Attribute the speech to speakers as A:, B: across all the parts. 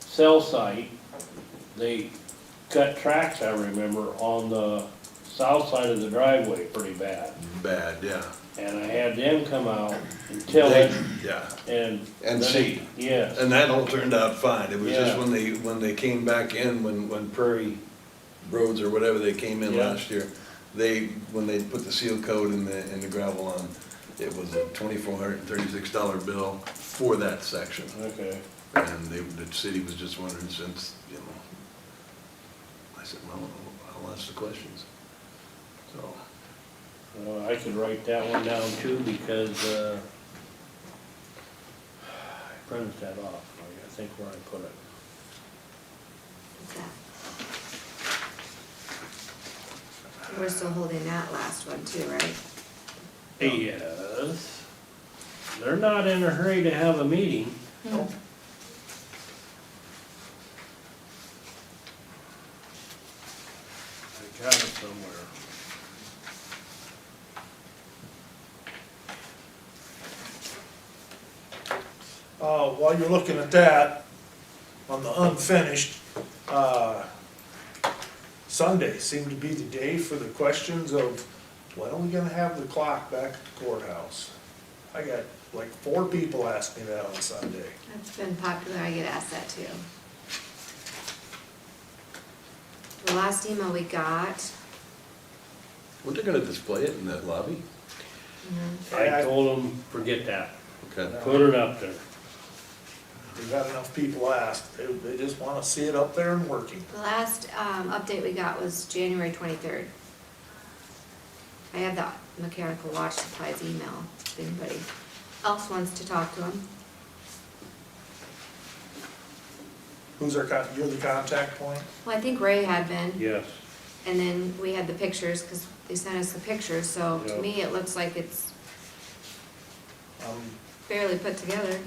A: cell site, they cut tracks, I remember, on the south side of the driveway pretty bad.
B: bad, yeah,
A: And I had them come out and till it
B: yeah.
A: and.
B: And
A: then-
B: seed.
A: Yes,
B: And that all turned out fine, it was just
A: Yeah.
B: when they, when they came back in, when, when Prairie Roads or whatever they came in
A: Yeah.
B: last year, they, when they put the seal coat and the, and the gravel on, it was a twenty-four hundred and thirty-six dollar bill for that section.
A: okay.
B: And they, the city was just wondering since, you know, I said, well, I'll ask the questions. So,
A: Well, I could write that one down too, because, uh, I printed that off, I think where I put it.
C: We're still holding that last one too, right?
A: Yes. They're not in a hurry to have a meeting. I got it somewhere.
D: Uh, while you're looking at that, on the unfinished, uh, Sunday seemed to be the day for the questions of, when are we gonna have the clock back at the courthouse? I got like four people asked me that on Sunday.
C: That's been popular, I get asked that too. The last email we got,
B: weren't they gonna display it in that lobby?
A: I told them, forget that,
B: Okay.
A: put it up there.
D: We've had enough people ask, they, they just wanna see it up there and working.
C: the last, um, update we got was January twenty-third. I have that mechanical watch supplies email, if anybody else wants to talk to him.
D: Who's our con, you're the contact point?
C: Well, I think Ray had been,
A: Yes,
C: and then we had the pictures, cause they sent us the pictures, so
A: Yeah.
C: to me, it looks like it's
D: Um,
C: fairly put together.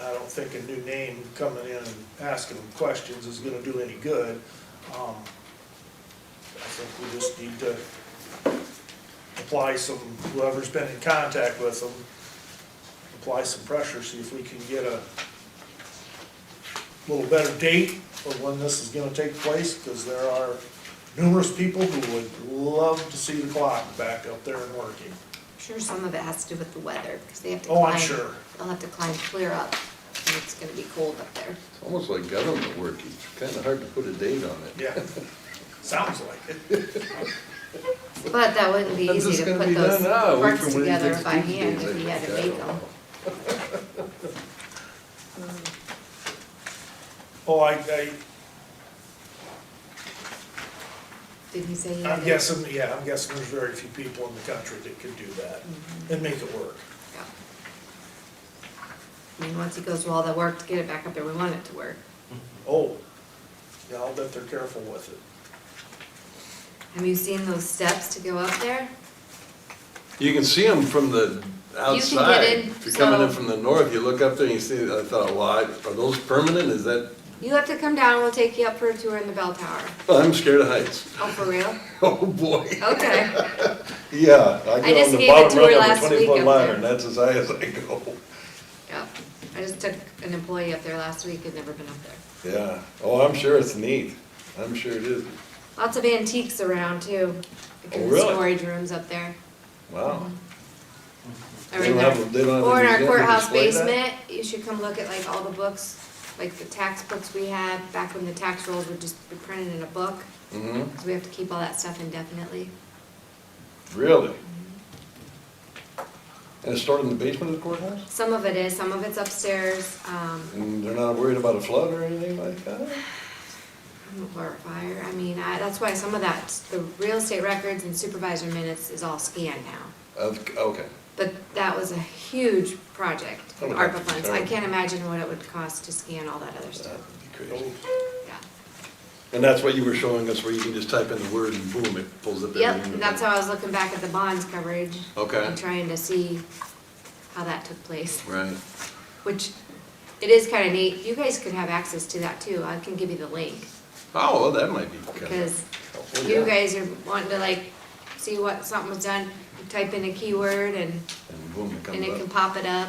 D: I don't think a new name coming in and asking them questions is gonna do any good. Um, I think we just need to apply some, whoever's been in contact with them, apply some pressure, see if we can get a little better date of when this is gonna take place, because there are numerous people who would love to see the clock back up there and working.
C: Sure, some of it has to do with the weather, because they have to climb.
D: Oh, I'm sure.
C: They'll have to climb clear up, and it's gonna be cold up there.
B: It's almost like government work, it's kinda hard to put a date on it.
D: Yeah, sounds like it.
C: But that wouldn't be
B: When's
C: easy
B: this
C: to
B: gonna
C: put
B: be
C: those
B: done? Ah, a week
C: parts
B: from when he
C: together
B: takes
C: by
B: Tuesday,
C: hand
B: he's
C: if he
B: like,
C: had to
B: "God,
C: make
B: I'll-
C: them.
D: Oh, I, I,
C: Did he say he had?
D: I'm
C: it?
D: guessing, yeah, I'm guessing there's very few people in the country that could do that and make it work.
C: Yeah. I mean, once he goes through all the work to get it back up there, we want it to work.
D: Oh, yeah, I'll bet they're careful with it.
C: Have you seen those steps to go up there?
B: You can see them from the outside.
C: in,
B: If you're coming in
C: so-
B: from the north, you look up there and you see, I thought, well, I- are those permanent? Is that,
C: You have to come down, we'll take you up for a tour in the bell tower.
B: I'm scared of heights.
C: Oh, for real?
B: Oh, boy.
C: Okay.
B: Yeah, I get
C: just
B: on the
C: gave a
B: bottom
C: tour
B: rung
C: last
B: of a
C: week
B: twenty-foot
C: up
B: ladder
C: there.
B: and that's as high as I go.
C: Yeah. I just took an employee up there last week, had never been up there.
B: Yeah. Oh, I'm sure it's neat. I'm sure it is.
C: Lots of antiques around too. Like
B: Oh,
C: in the
B: really?
C: storage rooms up there.
B: Wow.
C: Or
B: They
C: in
B: don't have
C: our-
B: a- they don't have a
C: Or in our
B: museum to
C: courthouse
B: display that?
C: basement, you should come look at like all the books, like the tax books we had back when the tax rolls would just be printed in a book.
B: hmm
C: Cause we have to keep all that stuff indefinitely.
B: Really? And it's stored in the basement of the courthouse?
C: Some of it is, some of it's upstairs, um,
B: And they're not worried about a flood or anything like that?
C: or fire, I mean, I, that's why some of that, the real estate records and supervisor minutes is all scanned now.
B: Of, okay.
C: But that was a huge project,
B: Oh, that's
C: ARPA funds, I
B: terrible.
C: can't imagine what it would cost to scan all that other
B: That
C: stuff,
B: would be crazy.
C: yeah.
B: And that's what you were showing us, where you can just type in the word and boom, it pulls up everything.
C: Yep, that's how I was looking back at the bonds coverage.
B: Okay.
C: And trying to see how that took place,
B: Right.
C: which it is kind of neat. You guys could have access to that too. I can give you the link.
B: Oh, well, that might be kind
C: Because
B: of.
C: you guys are wanting to like see what something was done, you type in a keyword and,
B: And boom, it
C: and it can
B: comes up.
C: pop it up.